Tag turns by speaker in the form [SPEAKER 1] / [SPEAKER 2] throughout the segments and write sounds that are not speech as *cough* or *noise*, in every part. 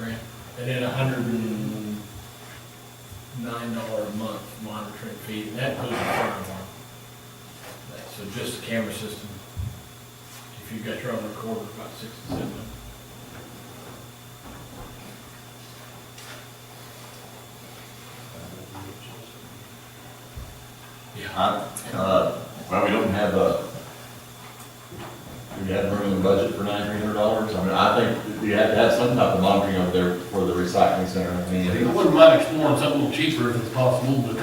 [SPEAKER 1] And then a hundred and nine dollar a month monitoring fee, and that goes in front of one. That- So just the camera system. If you've got your own recorder, about six to seven. Yeah,
[SPEAKER 2] I, uh, well, we don't have a, we have room in the budget for nine hundred dollars. I mean, I think we have to have some type of monitoring over there for the recycling center. I mean,
[SPEAKER 3] I wouldn't mind exploring something a little cheaper if it's possible, but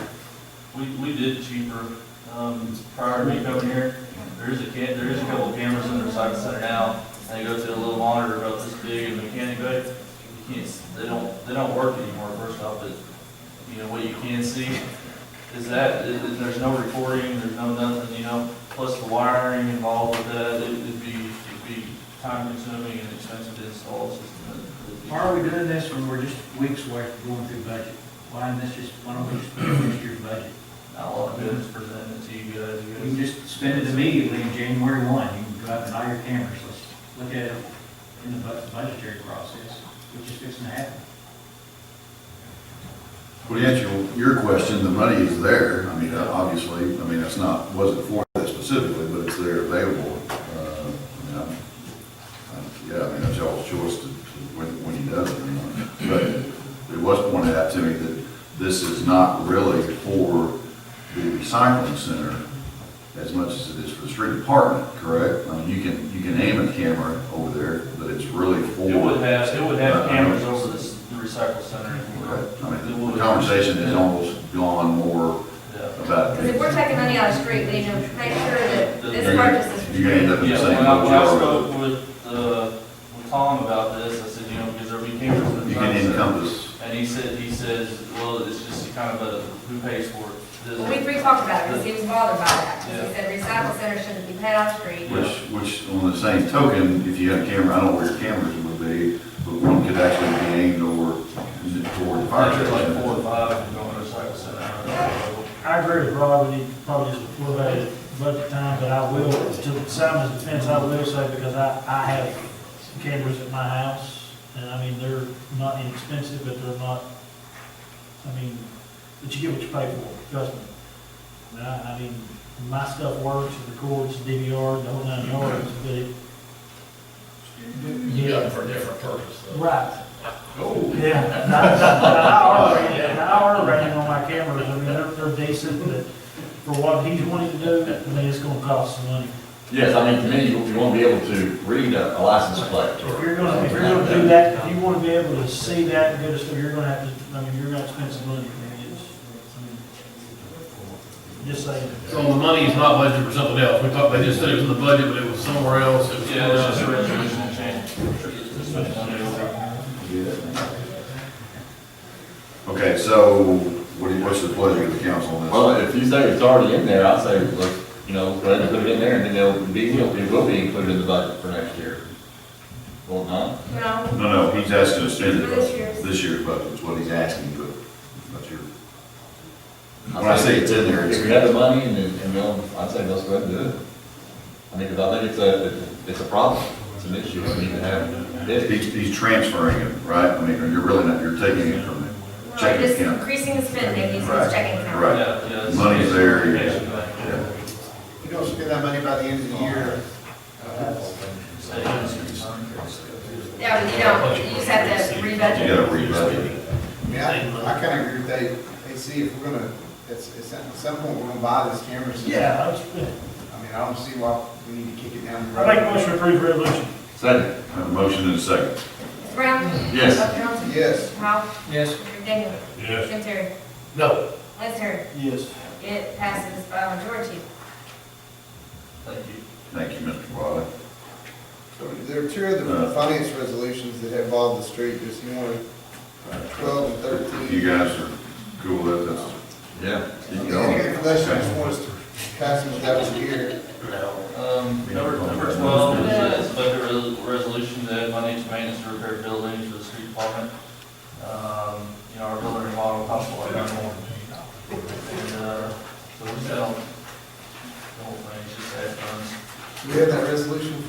[SPEAKER 4] We, we did cheaper, um, prior to me coming here, there is a ca, there is a couple of cameras in the recycling center now, and they go to a little monitor about this big and mechanic, but you can't, s- they don't, they don't work anymore, first off, but, you know, what you can see is that, it- it- there's no recording, there's no nothing, you know, plus the wiring involved with that, it- it'd be, it'd be time consuming and expensive to install, it's just. uh,
[SPEAKER 5] Why are we doing this when we're just weeks away from going through budget? Why isn't this just, why don't we just spend this year's budget?
[SPEAKER 4] Not a lot of good is presented to you guys, you
[SPEAKER 5] You
[SPEAKER 4] guys.
[SPEAKER 5] can just spend it immediately in January one, you can go out and buy your cameras, let's look at it in the bu- budgetary process, which is fixing to happen.
[SPEAKER 6] Well, to answer your- your question, the money is there, I mean, uh, obviously, I mean, it's not, wasn't for that specifically, but it's there available. Uh, I mean, I'm- I'm- Yeah, I mean, that's y'all's choice to, to- when, when he does it, you know. but it was pointed out to me that this is not really for the recycling center as much as it is for the street department, correct? I mean, you can, you can aim a camera over there, but it's really for.
[SPEAKER 4] It would have, it would have cameras over this the recycle center.
[SPEAKER 6] Right. I
[SPEAKER 4] It
[SPEAKER 6] mean,
[SPEAKER 4] would.
[SPEAKER 6] the conversation has almost gone more
[SPEAKER 4] Yeah.
[SPEAKER 6] about.
[SPEAKER 7] Because if we're taking money out of the street, we need to make sure that this purchase is for
[SPEAKER 6] You're gonna end up in the
[SPEAKER 4] Yeah,
[SPEAKER 6] same
[SPEAKER 4] when I, when I
[SPEAKER 6] boat
[SPEAKER 4] spoke with, uh, with Tom about this, I said, you know, because there'll be cameras in
[SPEAKER 6] you are.
[SPEAKER 4] the
[SPEAKER 6] You can
[SPEAKER 4] recycle center.
[SPEAKER 6] encompass,
[SPEAKER 4] And he said, he says, well, it's just kind of a, who pays for it?
[SPEAKER 7] Well, We
[SPEAKER 4] The-
[SPEAKER 7] three talked about it, because he was bothered by that, because he said recycle center shouldn't be paid out of the street.
[SPEAKER 6] which, which on the same token, if you had a camera, I don't know where your cameras would be, but one could actually be aimed over, toward the fire
[SPEAKER 4] There's
[SPEAKER 6] station.
[SPEAKER 4] like four or five going to the recycle center. I
[SPEAKER 8] I agree with Rob, we need to probably just before that budget time, but I will, to Simon's defense, I will say, because I, I have cameras at my house, and I mean, they're not inexpensive, but they're not, I mean, but you get what you pay for, trust me. I mean, I, I mean, my stuff works, it records, DVR, the whole nine yards, but it,
[SPEAKER 1] you got it for a different purpose though.
[SPEAKER 8] right,
[SPEAKER 6] Oh.
[SPEAKER 8] *laughs* yeah. And I already, and I already ran on my cameras, I mean, they're, they're decent, but for what he's wanting to do, I mean, it's gonna cost some money.
[SPEAKER 2] Yes, I mean, to me, you you won't be able to read a a license plate or.
[SPEAKER 8] If you're gonna, if
[SPEAKER 2] something
[SPEAKER 8] you're
[SPEAKER 2] like
[SPEAKER 8] gonna do that, if you wanna be able to see that and go to stuff, you're gonna have to, I mean, you're gonna have to spend some money, I mean, it's, I mean, just saying.
[SPEAKER 3] so the money is not budgeted for something else. We talked, they just said it was in the budget, but it was somewhere else. It was-
[SPEAKER 4] Yeah, it's just a resolution change. It's just a-
[SPEAKER 6] Okay, so what do you, what's the pleasure of the council on this?
[SPEAKER 2] Well, if you say it's already in there, I'd say, look, you know, go ahead and put it in there, and then it'll be, it will be included in the budget for next year. Well, no?
[SPEAKER 7] You know,
[SPEAKER 6] No, no, he's asking to spend it.
[SPEAKER 7] For this year's.
[SPEAKER 6] This year's budget is what he's asking, but that's your, when I say it's in there, it's.
[SPEAKER 2] If we have the money, and, then- and we'll, I'd say let's go ahead and do it. I mean, because I think it's a, it's a problem, it's an issue, we need to have it.
[SPEAKER 6] He's, he's transferring it, right? I mean, you're really not, you're taking it from him.
[SPEAKER 7] we're
[SPEAKER 6] Checking
[SPEAKER 7] just
[SPEAKER 6] account.
[SPEAKER 7] increasing the spending, using
[SPEAKER 6] Right.
[SPEAKER 7] his checking account.
[SPEAKER 6] Right.
[SPEAKER 4] Yeah, yeah, it's-
[SPEAKER 6] Money's there, yeah.
[SPEAKER 4] Yeah.
[SPEAKER 9] You don't spend that money by the end of the year.
[SPEAKER 4] Savings.
[SPEAKER 7] Yeah, but you don't, you just have to
[SPEAKER 6] You
[SPEAKER 7] rebudget.
[SPEAKER 6] gotta rebudget it.
[SPEAKER 9] I mean, I, I kinda agree with Dave, hey, see, if we're gonna, it's, it's, at some point, we're gonna buy this camera system.
[SPEAKER 8] Yeah, I was, I
[SPEAKER 9] I mean, I don't see why we need to kick it down the
[SPEAKER 8] make a
[SPEAKER 9] road.
[SPEAKER 8] motion to approve resolution.
[SPEAKER 2] Second,
[SPEAKER 6] I have a motion and a second.
[SPEAKER 7] Brown?
[SPEAKER 2] Yes.
[SPEAKER 7] Buck Johnson?
[SPEAKER 9] Yes.
[SPEAKER 7] Powell?
[SPEAKER 5] Yes.
[SPEAKER 7] Daniel?
[SPEAKER 3] Yes.
[SPEAKER 7] Jim Terry?
[SPEAKER 3] No.
[SPEAKER 7] Let's hear.
[SPEAKER 4] Yes.
[SPEAKER 7] It passes by a majority.
[SPEAKER 4] Thank you.
[SPEAKER 6] Thank you, Mr. Wiley.
[SPEAKER 9] There are two other finance resolutions that involve the street, there's one, twelve and
[SPEAKER 6] If
[SPEAKER 9] thirteen.
[SPEAKER 6] you guys are cool with it, that's,
[SPEAKER 2] yeah, keep going.
[SPEAKER 9] Unless you just want us to pass them without us here.
[SPEAKER 4] Um, number, number twelve is a budget resolution to add money to maintenance and repair buildings for the street department. Um, uh,